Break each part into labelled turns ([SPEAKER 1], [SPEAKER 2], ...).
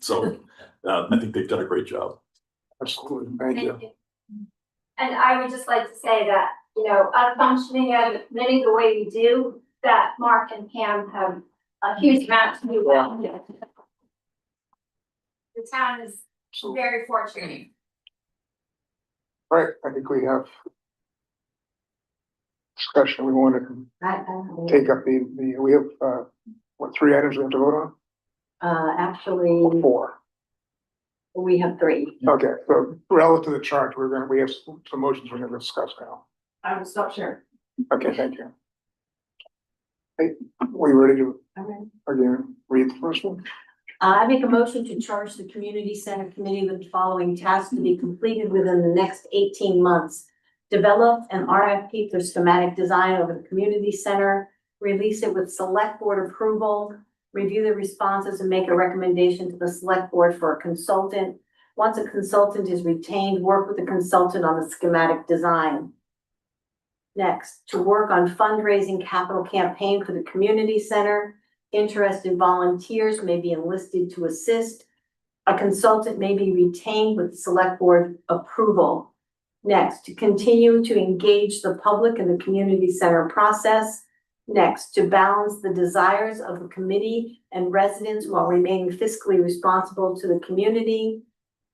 [SPEAKER 1] So uh, I think they've done a great job.
[SPEAKER 2] Absolutely, thank you.
[SPEAKER 3] Thank you. And I would just like to say that, you know, us functioning as a committee the way we do, that Mark and Pam have a huge amount to do well. The town is
[SPEAKER 2] So,
[SPEAKER 3] very fortunate.
[SPEAKER 2] right, I think we have discussion we wanted to
[SPEAKER 4] I, I don't know.
[SPEAKER 2] take up the, the, we have, uh, what, three items we have to vote
[SPEAKER 4] uh,
[SPEAKER 2] on?
[SPEAKER 4] actually,
[SPEAKER 2] Four.
[SPEAKER 4] we have three.
[SPEAKER 2] Okay, so relative to the chart, we're gonna, we have some motions we're gonna discuss now.
[SPEAKER 4] I will stop share.
[SPEAKER 2] Okay, thank you. Hey, were you ready to,
[SPEAKER 4] Okay.
[SPEAKER 2] again, read the first one?
[SPEAKER 4] Uh, I make a motion to charge the community center committee with the following tasks to be completed within the next eighteen months. Develop an RFP for schematic design of the community center, release it with select board approval, review the responses and make a recommendation to the select board for a consultant. Once a consultant is retained, work with the consultant on the schematic design. Next, to work on fundraising capital campaign for the community center, Interested volunteers may be enlisted to assist. A consultant may be retained with select board approval. Next, to continue to engage the public in the community center process. Next, to balance the desires of the committee and residents while remaining fiscally responsible to the community.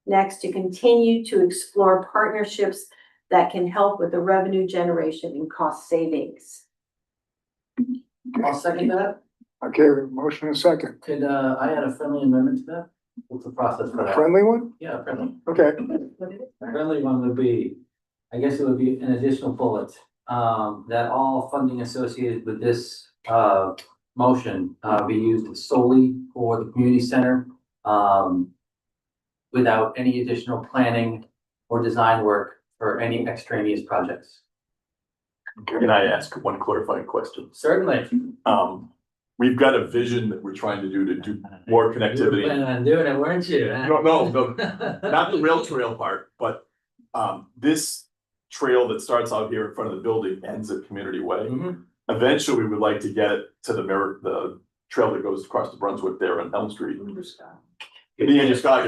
[SPEAKER 4] Next, to continue to explore partnerships that can help with the revenue generation and cost savings.
[SPEAKER 5] I'll second that.
[SPEAKER 2] Okay, motion and second.
[SPEAKER 5] Could, uh, I add a friendly amendment to that? What's the process for
[SPEAKER 2] A
[SPEAKER 5] that?
[SPEAKER 2] friendly one?
[SPEAKER 5] Yeah, friendly.
[SPEAKER 2] Okay,
[SPEAKER 5] Friendly one would be, I guess it would be an additional bullet, um, that all funding associated with this, uh, motion, uh, be used solely for the community center, um, without any additional planning or design work for any extraneous projects.
[SPEAKER 1] Can I ask one clarifying question?
[SPEAKER 5] Certainly.
[SPEAKER 1] Um, we've got a vision that we're trying to do to do more
[SPEAKER 5] You were planning
[SPEAKER 1] connectivity.
[SPEAKER 5] on doing it, weren't you?
[SPEAKER 1] No, no, no, not the rail trail part, but um, this trail that starts out here in front of the building ends at Community Way.
[SPEAKER 5] Mhm.
[SPEAKER 1] Eventually, we would like to get it to the mer the trail that goes across the Brunswick there on Elm Street. Yeah, just got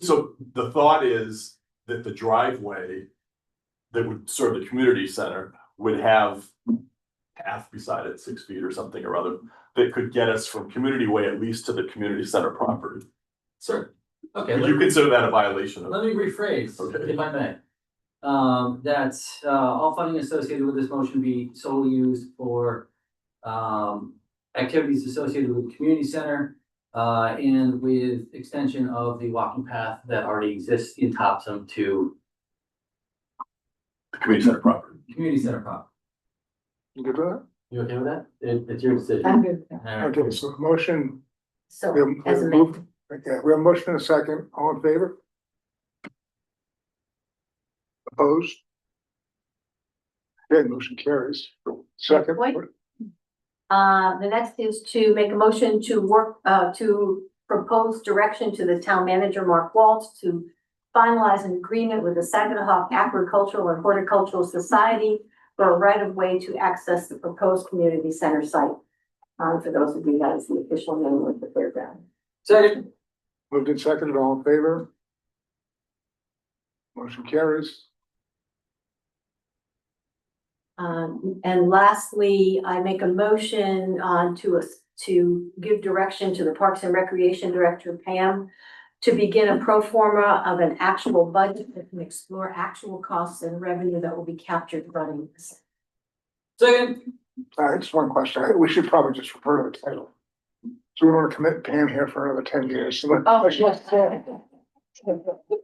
[SPEAKER 1] So the thought is that the driveway that would serve the community center would have path beside it, six feet or something or other, that could get us from community way at least to the community center property.
[SPEAKER 5] Sir, okay,
[SPEAKER 1] Would
[SPEAKER 5] let
[SPEAKER 1] you
[SPEAKER 5] me,
[SPEAKER 1] consider that a violation of?
[SPEAKER 5] let me rephrase,
[SPEAKER 1] Okay.
[SPEAKER 5] if I may. Um, that, uh, all funding associated with this motion be solely used for, um, activities associated with the community center, uh, and with extension of the walking path that already exists in Topsom to
[SPEAKER 1] The community center property.
[SPEAKER 5] community center property.
[SPEAKER 2] you good with
[SPEAKER 5] You okay with that? It, it's your decision.
[SPEAKER 4] I'm good with that.
[SPEAKER 2] that?
[SPEAKER 5] Alright.
[SPEAKER 2] Okay, so motion,
[SPEAKER 4] So,
[SPEAKER 2] we have, we
[SPEAKER 4] as
[SPEAKER 2] have
[SPEAKER 4] a
[SPEAKER 2] moved, okay, we have motion and second, all in favor? Opposed? Okay, motion carries. Second,
[SPEAKER 4] Wait. Uh, the next is to make a motion to work, uh, to propose direction to the town manager, Mark Waltz, to finalize an agreement with the Saginaw Agricultural and Horticultural Society for a right of way to access the proposed community center site. Um, for those of you that is the official name of the fairground.
[SPEAKER 5] Second,
[SPEAKER 2] moved and seconded, all in favor? Motion carries.
[SPEAKER 4] Um, and lastly, I make a motion, uh, to us, to give direction to the Parks and Recreation Director Pam to begin a pro forma of an actual budget that can explore actual costs and revenue that will be captured running this.
[SPEAKER 5] second,
[SPEAKER 2] Uh, just one question, I- we should probably just refer to the title. So we want to commit Pam here for another ten years.
[SPEAKER 4] Oh,
[SPEAKER 2] so-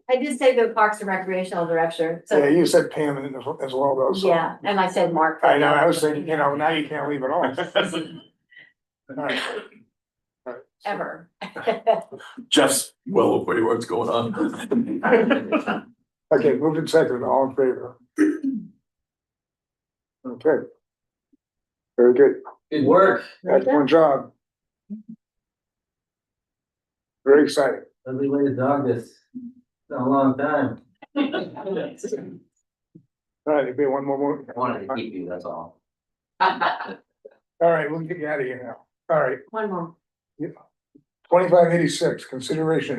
[SPEAKER 4] I did say the Parks and Recreational Director,
[SPEAKER 2] Yeah,
[SPEAKER 4] so,
[SPEAKER 2] you said Pam in as- as well though, so.
[SPEAKER 4] yeah, and I said Mark.
[SPEAKER 2] I know, I was thinking, you know, now you can't leave it all. Alright. Alright.
[SPEAKER 4] Ever.
[SPEAKER 1] Jeff's well aware what's going on.
[SPEAKER 2] Okay, moved and seconded, all in favor? Okay. Very good,
[SPEAKER 5] good work,
[SPEAKER 2] excellent job. Very exciting.
[SPEAKER 5] lovely way to dog this, it's been a long time.
[SPEAKER 2] Alright, it'd be one more, more.
[SPEAKER 5] wanted to keep you, that's all.
[SPEAKER 2] Alright, we'll get you out of here now. Alright,
[SPEAKER 4] One more.
[SPEAKER 2] Twenty-five eighty-six, consideration